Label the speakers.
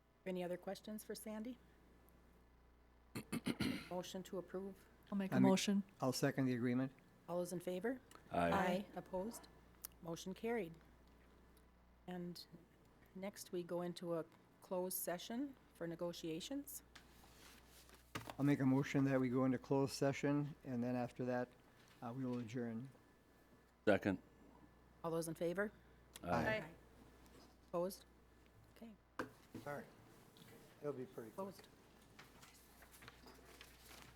Speaker 1: Any other questions for Sandy? Motion to approve.
Speaker 2: I'll make
Speaker 3: I
Speaker 2: a
Speaker 3: make-
Speaker 2: motion.
Speaker 3: I'll second the agreement.
Speaker 1: All those in favor? Opposed? Motion carried. And next, we go into a closed session for negotiations.
Speaker 3: I'll make a motion that we go into closed session, and then after that, uh, we will adjourn.
Speaker 4: Second.
Speaker 1: All those in favor?
Speaker 3: Aye.
Speaker 1: Opposed? Okay,
Speaker 3: All right. It'll be pretty
Speaker 1: opposed.